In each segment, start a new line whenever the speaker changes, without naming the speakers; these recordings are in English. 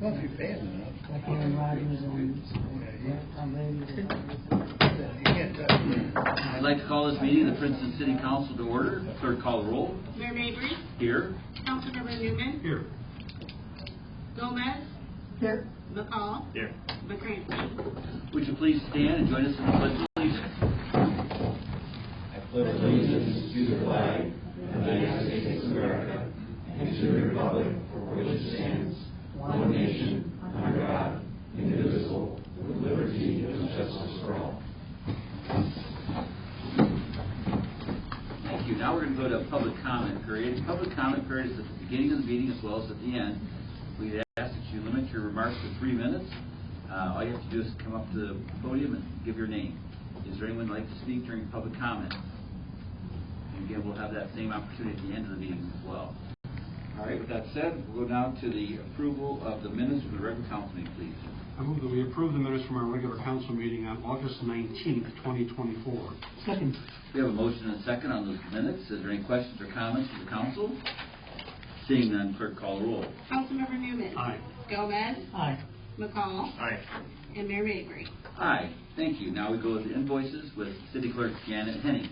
Well, if you're bad enough.
like Aaron Rodgers and, Tom Brady.
You can't touch them.
I'd like to call this meeting of the Princeton City Council to order. Clerk call the roll.
Mayor Mabry,
Here.
Councilmember Newman. Here. Gomez,
Here.
McCall. Here. McCrankey.
Would you please stand and join us in the pledge of allegiance? Thank you. Now we're going to go to a public comment period. Public comment period is at the beginning of the meeting as well as at the end. We ask that you limit your remarks to three minutes. Uh, All you have to do is come up to the podium and give your name. Is there anyone who'd like to speak during public comment? And again, we'll have that same opportunity at the end of the meeting as well. All right, with that said, we'll go now to the approval of the minutes from the regular council meeting, please.
I move that we approve the minutes from our regular council meeting on August 19th, 2024.
Second.
We have a motion and a second on those minutes. Is there any questions or comments from the council? Seeing none, clerk call the roll.
Councilmember Newman.
Aye.
Gomez,
Aye.
McCall. Aye. And Mayor Mabry.
Aye, thank you. Now we go with the invoices with City Clerk Janet Henning.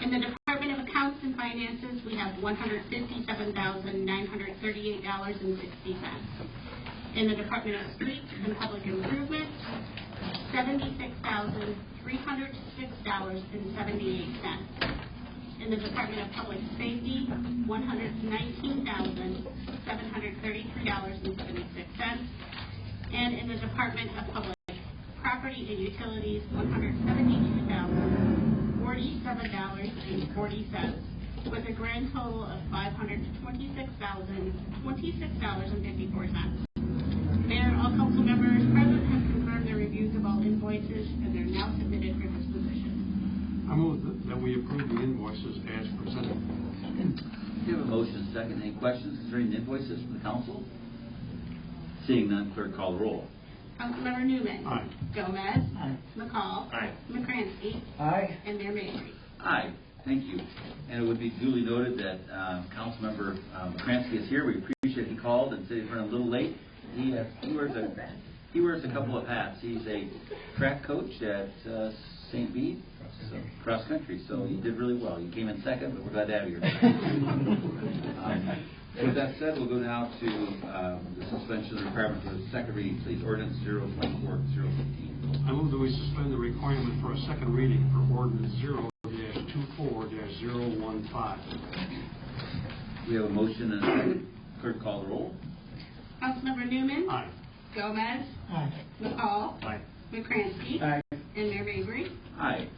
In the Department of Accounts and Finances, we have one hundred fifty-seven thousand, nine hundred thirty-eight dollars and sixty cents. In the Department of Streets and Public Improvement, seventy-six thousand, three hundred six dollars and seventy-eight cents. In the Department of Public Safety, one hundred nineteen thousand, seven hundred thirty-three dollars and seventy-six cents. And in the Department of Public Property and Utilities, one hundred seventy-two thousand, forty-seven dollars and forty cents, with a grand total of five hundred twenty-six thousand, twenty-six dollars and fifty-four cents. Mayor, all council members present have confirmed their reviews of all invoices, and they're now submitted for disposition.
I move that- that we approve the invoices as presented.
We have a motion and a second. Any questions concerning the invoices from the council? Seeing none, clerk call the roll.
Councilmember Newman.
Aye.
Gomez.
Aye.
McCall.
Aye.
McCrankey.
Aye.
And Mayor Mabry.
Aye, thank you. And it would be duly noted that uh, Councilmember um, Kransky is here. We appreciate he called and said he's running a little late. He has- he wears a, he wears a couple of hats. He's a track coach at uh, St. Bede, so, cross country, so he did really well. He came in second, but we're glad to have you here. Um, With that said, we'll go now to um, the suspension of the requirement for the second reading, please. Ordinance 024-015.
I move that we suspend the requirement for a second reading for ordinance 0-24-015.
We have a motion and a second. Clerk call the roll.
Councilmember Newman.
Aye.
Gomez.
Aye.
McCall.
Aye.
McCrankey. And Mayor Mabry.
Aye.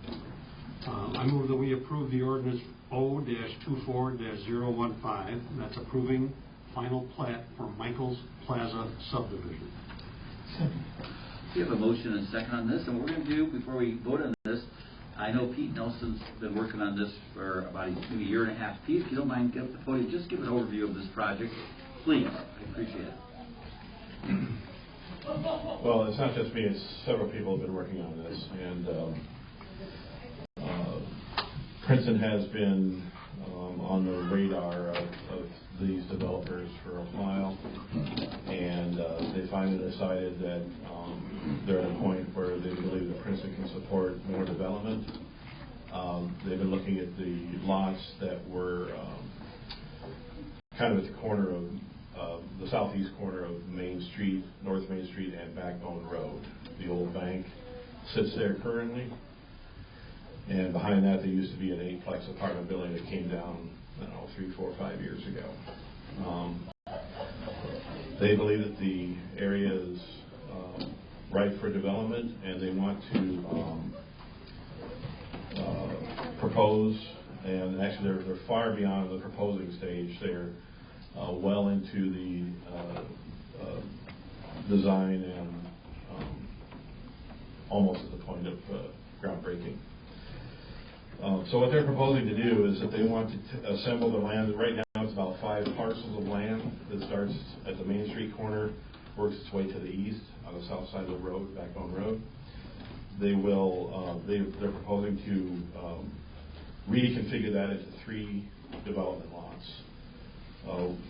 Uh, I move that we approve the ordinance O-24-015, that's approving final plat for Michael's Plaza subdivision.
Second.
We have a motion and a second on this, and what we're going to do before we vote on this, I know Pete Nelson's been working on this for about a- maybe a year and a half. Pete, if you don't mind, get up the podium, just give an overview of this project, please. I appreciate it.
Well, it's not just me, it's several people have been working on this, and um, uh, Princeton has been um, on the radar of of these developers for a while, and uh, they finally decided that um, they're at a point where they believe that Princeton can support more development. Um, They've been looking at the lots that were um, kind of at the corner of, uh, the southeast corner of Main Street, North Main Street and Backbone Road. The old bank sits there currently. And behind that, there used to be an eightplex apartment building that came down, I don't know, three, four, five years ago. Um, They believe that the area is, um, ripe for development and they want to, um, uh, propose, and actually, they're, they're far beyond the proposing stage. They're uh, well into the uh, uh, design and um, almost at the point of uh, groundbreaking. Um, So what they're proposing to do is that they want to t- assemble the land, right now, it's about five parcels of land that starts at the Main Street corner, works its way to the east, on the south side of the road, Backbone Road they will, uh, they, they're proposing to um, reconfigure that into three development lots. Uh,